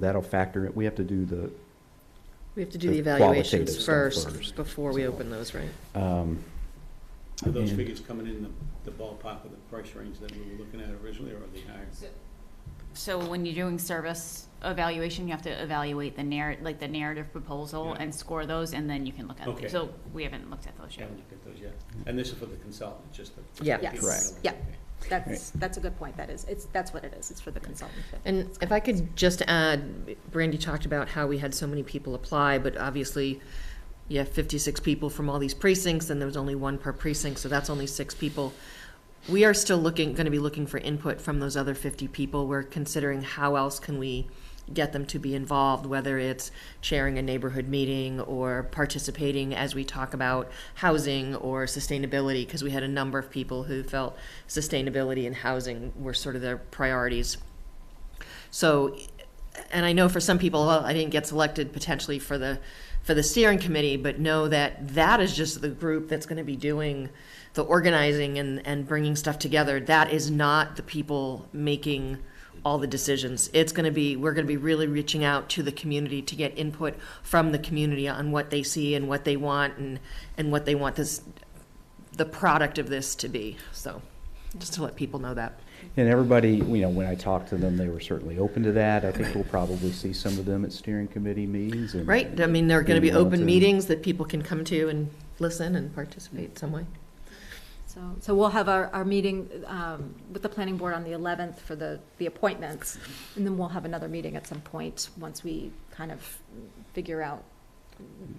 That'll factor, it. we have to do the, We have to do the The qualitative evaluations stuff first, first. before we open those, right? um, Are those And- figures coming in the- the ballpark of the price range that we were looking at originally, or are they higher? So when you're doing service evaluation, you have to evaluate the narr, like the narrative proposal Yeah. and score those, and then you can look at, Okay. them. so we haven't looked at those yet. Haven't looked at those yet. And this is for the consultant, just the. Yeah. the people Yes. that Correct. are- okay. That's, that's a good point, that is, it's, that's what it is, it's for the consultant. And if I could just add, Brandy talked about how we had so many people apply, but obviously you have 56 people from all these precincts, and there was only one per precinct, so that's only six people. We are still looking, going to be looking for input from those other 50 people. We're considering how else can we get them to be involved, whether it's chairing a neighborhood meeting or participating as we talk about housing or sustainability, because we had a number of people who felt sustainability and housing were sort of their priorities. So, and I know for some people, well, I didn't get selected potentially for the, for the steering committee, but know that that is just the group that's gonna be doing the organizing and, and bringing stuff together. That is not the people making all the decisions. It's gonna be, we're gonna be really reaching out to the community to get input from the community on what they see and what they want and, and what they want this, the product of this to be, so, just to let people know that. and everybody, you know, when I talked to them, they were certainly open to that. I think we'll probably see some of them at steering committee meetings and. Right, I mean, there are gonna be being willing open to- meetings that people can come to and listen and participate some way. So, so we'll have our, our meeting um, with the planning board on the 11th for the, the appointments, and then we'll have another meeting at some point, once we kind of figure out,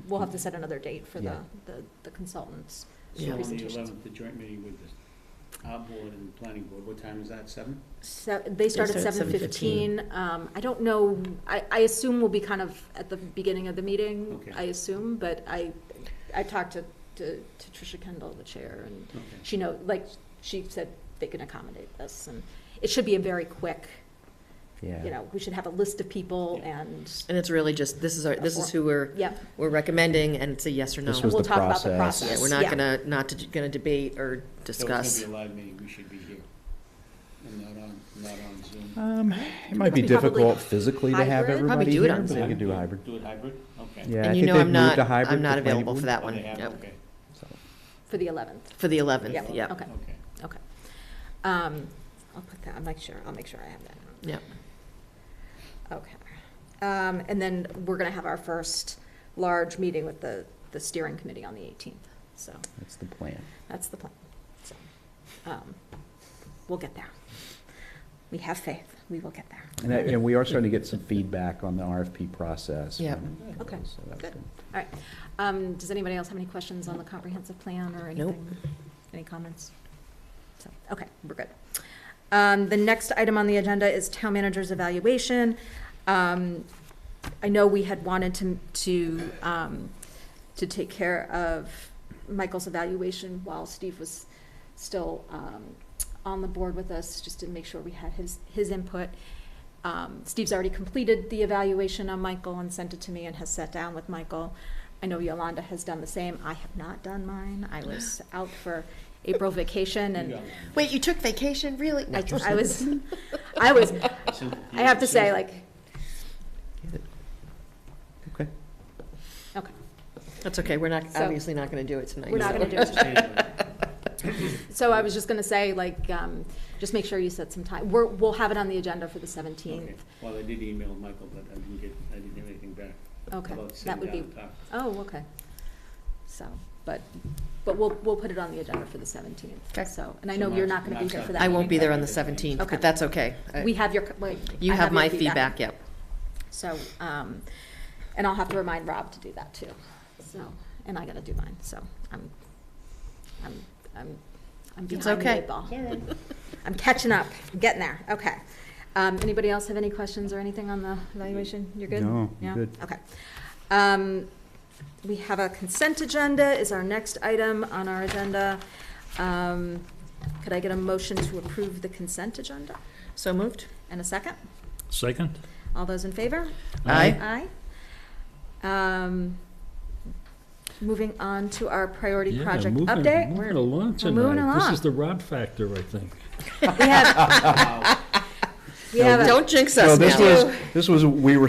we'll have to set another date for the, Yeah. the- the consultants. Yeah. So on the Presentations. eleventh, the joint meeting with the our board and the planning board, what time is that, seven? So, they start at start at 7:15. Um, I don't know, I, I assume we'll be kind of at the beginning of the meeting, Okay. I assume, but I, I talked to, to to Tricia Kendall, the chair, and Okay. she know, like, she said they can accommodate this, and it should be a very quick, you Yeah, know, we should have a list of people Yeah. and, And it's really just, this is our, this is who we're, yeah, we're recommending, and it's a yes or no. This and was we'll the talk about the process. Yeah, process. we're not gonna, not to- gonna debate or So discuss. it's gonna be a live meeting, we should be here. And not on, not on Zoom. um, it might be Probably difficult physically to have hybrid. Probably everybody do it here, on but we Zoom. could do hybrid. Do it hybrid, okay. Yeah, I And you think know they've I'm moved not, to hybrid, I'm the not planning available for board. that Oh, one, they have, yep. Okay, So, For the 11th. for the 11th, Yeah, yeah. okay, okay. okay. Um, I'll put that, I'll make sure, I'll make sure I have that. Yep. Okay. Um, and then we're gonna have our first large meeting with the, the steering committee on the eighteenth, so That's the plan. that's the plan. So, um, we'll get there. We have faith, we will get there. And, I- and we are starting to get some feedback on the RFP process. Yeah. from- Okay, so that's good. Um, does anybody else have any questions on the comprehensive plan or Nope. anything? Any comments? So, okay, we're good. Um, the next item on the agenda is town manager's evaluation. Um, I know we had wanted to, to, um, to take care of Michael's evaluation while Steve was still, um, on the board with us, just to make sure we had his, his input. Um, Steve's already completed the evaluation on Michael and sent it to me and has sat down with Michael. I know Yolanda has done the same. I have not done mine. I was out for April vacation You and got it. Wait, you took vacation, really? I, I was, I was, Simple. I have to say, Simple. like, Okay. okay, That's okay, we're not, So- obviously not gonna do it tonight. we're not so- gonna do it. So I was just gonna say, like, um, just make sure you set some time. We're, we'll have it on the agenda for the Okay. seventeenth. Well, I did email Michael, but I didn't get, I didn't get anything back Okay, about that sitting would down be, and talking. oh, okay. So, but, but we'll, we'll put it on the agenda for the seventeenth. Okay. So, and I So know you're March- not gonna be March here for seventh. that. I won't be there on the Okay. 17th, Okay. but that's okay. I- We have your, c- wait. You I have my your feedback, yep. So, um, and I'll have to remind Rob to do that too. So, and I gotta do mine, so I'm, I'm, I'm, I'm It's behind the okay. eight ball. I'm catching up, I'm getting there, okay. Um, anybody else have any questions or anything on the evaluation? You're good? No, I'm Yeah? good. Okay. Um, we have a consent agenda is our next item on our agenda. Um, could I get a motion to approve the consent agenda? So moved? And a second? Second? All those in favor? Aye. Aye. Um, Moving on to our priority Yeah, project moving- update. Moving along We're moving tonight. This along. is the Rod factor, I think. We have, we have a- Don't jinx So us now. this was, this was, we were